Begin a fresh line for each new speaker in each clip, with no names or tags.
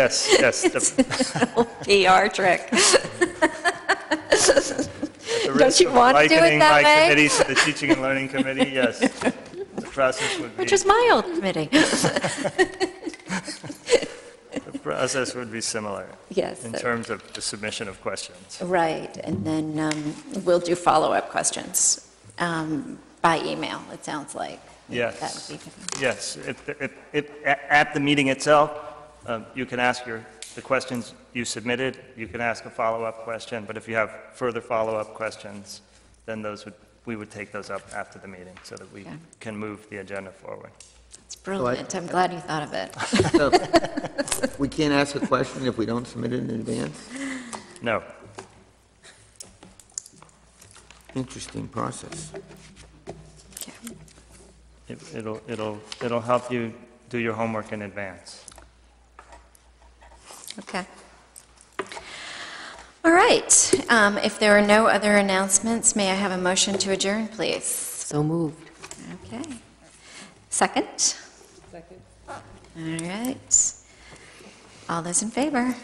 That's, that's the
PR trick.
the
Don't
risk
you
of
want to do it
likening
that
my
way?
committees to the Teaching and Learning Committee, yes. The process would be,
Which is my old committee.
the process would be similar
Yes.
in
so-
terms of the submission of questions.
Right, and then um, we'll do follow-up questions um, by email, it sounds like.
Yes.
That would be good.
Yes, if- if- if- a- at the meeting itself, um, you can ask your, the questions you submitted, you can ask a follow-up question, but if you have further follow-up questions, then those would, we would take those up after the meeting so that we
Yeah.
can move the agenda forward.
It's brilliant, I'm glad you thought of it.
So, We can't ask a question if we don't submit it in advance?
No,
Interesting process.
Okay.
it- it'll, it'll, it'll help you do your homework in advance.
Okay. All right, um, if there are no other announcements, may I have a motion to adjourn, please?
So moved.
Okay. Second? Second. All right. All those in favor? All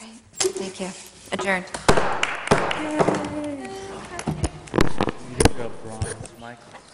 right, thank you. Adjourned.
Go bronze, Michael.